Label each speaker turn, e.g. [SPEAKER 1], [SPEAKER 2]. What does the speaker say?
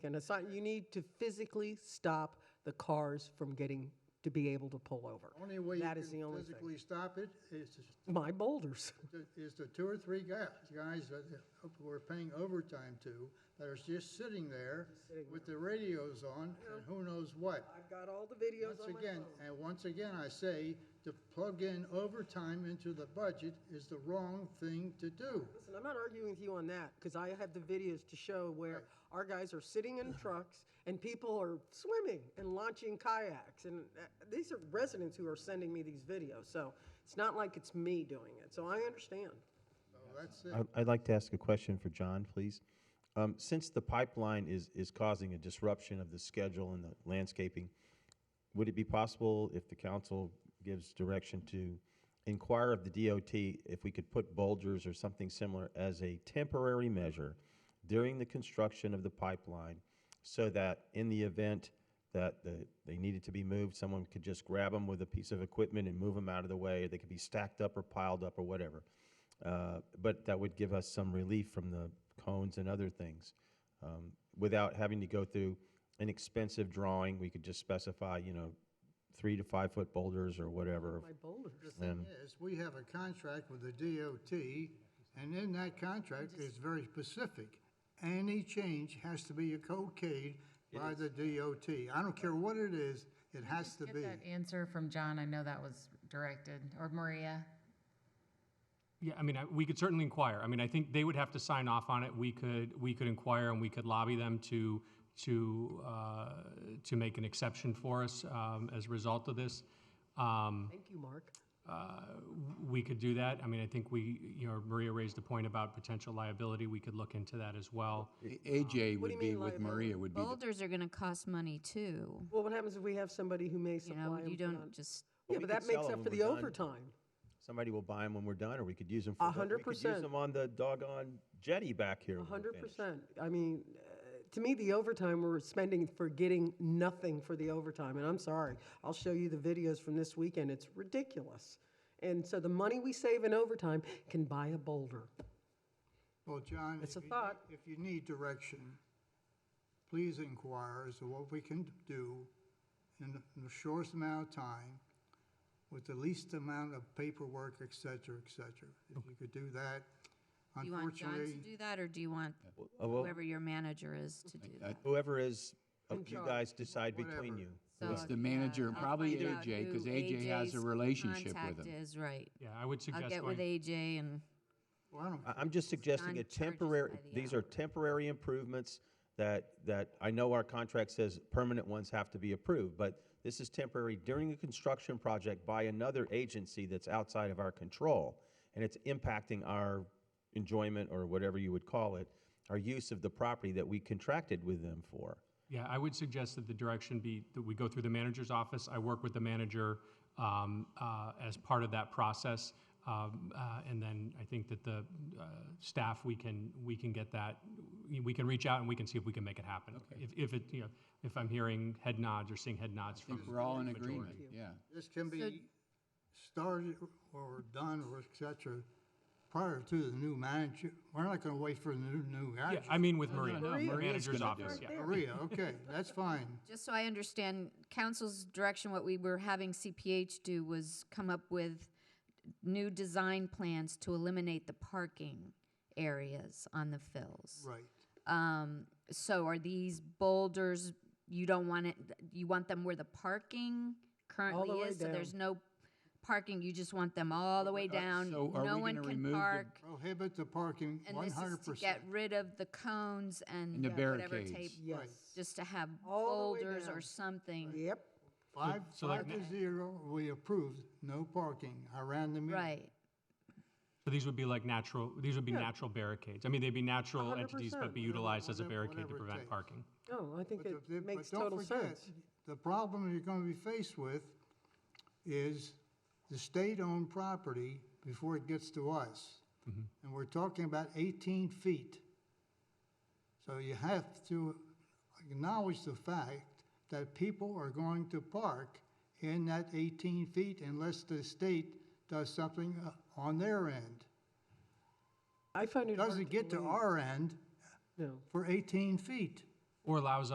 [SPEAKER 1] And it's not, you need to physically stop the cars from getting, to be able to pull over.
[SPEAKER 2] Only way you
[SPEAKER 1] That is the
[SPEAKER 2] can
[SPEAKER 1] only thing.
[SPEAKER 2] physically stop it is,
[SPEAKER 1] My boulders.
[SPEAKER 2] to- is the two or three guys, guys that we're paying overtime to, that are just sitting there with their radios on and who knows what.
[SPEAKER 1] I've got all the videos
[SPEAKER 2] Once again, and once again, I say, to plug in overtime into the budget is the wrong thing to do.
[SPEAKER 1] Listen, I'm not arguing with you on that, because I have the videos to show where our guys are sitting in trucks and people are swimming and launching kayaks. And uh, these are residents who are sending me these videos, so it's not like it's me doing it. So I understand.
[SPEAKER 2] So that's it.
[SPEAKER 3] I- I'd like to ask a question for John, please. Um, Since the pipeline is, is causing a disruption of the schedule and the landscaping, would it be possible if the council gives direction to inquire of the DOT if we could put bulgers or something similar as a temporary measure during the construction of the pipeline so that in the event that the, they needed to be moved, someone could just grab them with a piece of equipment and move them out of the way? They could be stacked up or piled up or whatever. Uh, But that would give us some relief from the cones and other things um, without having to go through an expensive drawing. We could just specify, you know, three to five foot boulders or whatever.
[SPEAKER 1] My boulders.
[SPEAKER 2] thing is, we have a contract with the DOT, and in that contract is very specific. Any change has to be okayed by the DOT. I don't care what it is, it has to
[SPEAKER 4] Get
[SPEAKER 2] be.
[SPEAKER 4] that answer from John, I know that was directed, or Maria.
[SPEAKER 5] Yeah, I mean, I- we could certainly inquire. I mean, I think they would have to sign off on it. We could, we could inquire and we could lobby them to, to, uh, to make an exception for us um, as a result of this. Um,
[SPEAKER 1] Thank you, Mark.
[SPEAKER 5] We could do that. I mean, I think we, you know, Maria raised a point about potential liability. We could look into that as well.
[SPEAKER 6] AJ
[SPEAKER 1] What do you
[SPEAKER 6] would be
[SPEAKER 1] mean
[SPEAKER 6] with
[SPEAKER 1] liability?
[SPEAKER 6] Maria would be, the-
[SPEAKER 7] Boulders are gonna cost money too.
[SPEAKER 1] Well, what happens if we have somebody who may
[SPEAKER 7] You
[SPEAKER 1] supply
[SPEAKER 7] know,
[SPEAKER 1] them?
[SPEAKER 7] you
[SPEAKER 1] for
[SPEAKER 7] don't
[SPEAKER 1] that?
[SPEAKER 7] just,
[SPEAKER 1] Yeah,
[SPEAKER 3] Well, we
[SPEAKER 1] but that
[SPEAKER 3] could sell
[SPEAKER 1] makes
[SPEAKER 3] them
[SPEAKER 1] up
[SPEAKER 3] when
[SPEAKER 1] for
[SPEAKER 3] we're
[SPEAKER 1] the
[SPEAKER 3] done.
[SPEAKER 1] overtime.
[SPEAKER 3] Somebody will buy them when we're done, or we could use them for. the-
[SPEAKER 1] hundred
[SPEAKER 3] we could Use
[SPEAKER 1] percent.
[SPEAKER 3] them on the doggone jetty back here. when we're
[SPEAKER 1] Hundred
[SPEAKER 3] finished.
[SPEAKER 1] percent. I mean, uh, to me, the overtime we're spending for getting nothing for the overtime, and I'm sorry. I'll show you the videos from this weekend. It's ridiculous. And so the money we save in overtime can buy a boulder.
[SPEAKER 2] Well, John.
[SPEAKER 1] It's a
[SPEAKER 2] if you need-
[SPEAKER 1] thought.
[SPEAKER 2] If you need direction, please inquire as to what we can do in the- in the shortest amount of time with the least amount of paperwork, et cetera, et cetera. If you could do that,
[SPEAKER 7] do you want John to
[SPEAKER 2] unfortunately.
[SPEAKER 7] do that or do you want
[SPEAKER 3] Uh, well,
[SPEAKER 7] whoever your manager is to do that?
[SPEAKER 3] Whoever is, uh, you guys decide between
[SPEAKER 2] Whatever.
[SPEAKER 3] you.
[SPEAKER 7] So,
[SPEAKER 6] it's the manager and
[SPEAKER 7] I'll
[SPEAKER 6] probably
[SPEAKER 7] find out
[SPEAKER 6] AJ, because
[SPEAKER 7] who
[SPEAKER 6] AJ has a
[SPEAKER 7] AJ's
[SPEAKER 6] relationship with
[SPEAKER 7] Contact
[SPEAKER 6] him.
[SPEAKER 7] is, right.
[SPEAKER 5] Yeah, I would
[SPEAKER 7] I'll
[SPEAKER 5] suggest
[SPEAKER 7] get with
[SPEAKER 5] going,
[SPEAKER 7] AJ and,
[SPEAKER 2] Well, I don't
[SPEAKER 3] I- I'm just suggesting
[SPEAKER 7] John
[SPEAKER 3] a
[SPEAKER 7] charges by
[SPEAKER 3] temporary,
[SPEAKER 7] the
[SPEAKER 3] these are temporary improvements that, that I know our contract says permanent ones have to be approved, but this is temporary during a construction project by another agency that's outside of our control. And it's impacting our enjoyment or whatever you would call it, our use of the property that we contracted with them for.
[SPEAKER 5] yeah, I would suggest that the direction be that we go through the manager's office. I work with the manager um, uh, as part of that process. Um, uh, And then I think that the uh, staff, we can, we can get that, we can reach out and we can see if we can make it happen. If, if it, you know, if I'm hearing head nods or seeing head nods
[SPEAKER 6] I think
[SPEAKER 5] from,
[SPEAKER 6] We're all in agreement, yeah.
[SPEAKER 2] This can be started or done or et cetera prior to the new manager. We're not gonna wait for the new, new
[SPEAKER 5] yeah,
[SPEAKER 2] manager.
[SPEAKER 5] I mean with Maria,
[SPEAKER 6] no, Maria's
[SPEAKER 5] manager's
[SPEAKER 6] gonna do
[SPEAKER 5] office,
[SPEAKER 6] it.
[SPEAKER 5] yeah.
[SPEAKER 2] Maria, okay, that's fine.
[SPEAKER 7] just so I understand, council's direction, what we were having CPH do was come up with new design plans to eliminate the parking areas on the fills.
[SPEAKER 2] Right.
[SPEAKER 7] Um, So are these boulders, you don't want it, you want them where the parking currently
[SPEAKER 1] way
[SPEAKER 7] is? So there's
[SPEAKER 1] down.
[SPEAKER 7] no parking, you just want them all the way down?
[SPEAKER 6] so are
[SPEAKER 7] No
[SPEAKER 6] we
[SPEAKER 7] one
[SPEAKER 6] gonna
[SPEAKER 7] can
[SPEAKER 6] remove the-
[SPEAKER 7] park,
[SPEAKER 2] Prohibit the parking
[SPEAKER 7] And
[SPEAKER 2] one
[SPEAKER 7] this is
[SPEAKER 2] hundred
[SPEAKER 7] to get
[SPEAKER 2] percent.
[SPEAKER 7] rid of the cones and
[SPEAKER 6] the
[SPEAKER 7] uh, whatever
[SPEAKER 6] barricades.
[SPEAKER 7] tape,
[SPEAKER 1] Yes.
[SPEAKER 7] just to have
[SPEAKER 1] All the way
[SPEAKER 7] boulders
[SPEAKER 1] down.
[SPEAKER 7] or something.
[SPEAKER 1] Yep.
[SPEAKER 2] Five,
[SPEAKER 5] So like
[SPEAKER 2] five to zero, we approved, no parking. I ran the meter.
[SPEAKER 7] Right,
[SPEAKER 5] So these would be like natural, these would be natural barricades. I mean, they'd be natural entities,
[SPEAKER 1] 100%,
[SPEAKER 5] but be utilized as a
[SPEAKER 2] whatever-
[SPEAKER 5] barricade to
[SPEAKER 2] whatever it
[SPEAKER 5] prevent
[SPEAKER 2] takes.
[SPEAKER 5] parking.
[SPEAKER 1] Oh, I think
[SPEAKER 2] But the-
[SPEAKER 1] it
[SPEAKER 2] but
[SPEAKER 1] makes
[SPEAKER 2] don't
[SPEAKER 1] total
[SPEAKER 2] forget,
[SPEAKER 1] sense.
[SPEAKER 2] The problem you're gonna be faced with is the state-owned property before it gets to us. And we're talking about eighteen feet. So you have to acknowledge the fact that people are going to park in that eighteen feet unless the state does something uh, on their end.
[SPEAKER 1] I find it hard
[SPEAKER 2] Doesn't get to
[SPEAKER 1] believe-
[SPEAKER 2] our end
[SPEAKER 1] No.
[SPEAKER 2] for eighteen feet.
[SPEAKER 5] or allows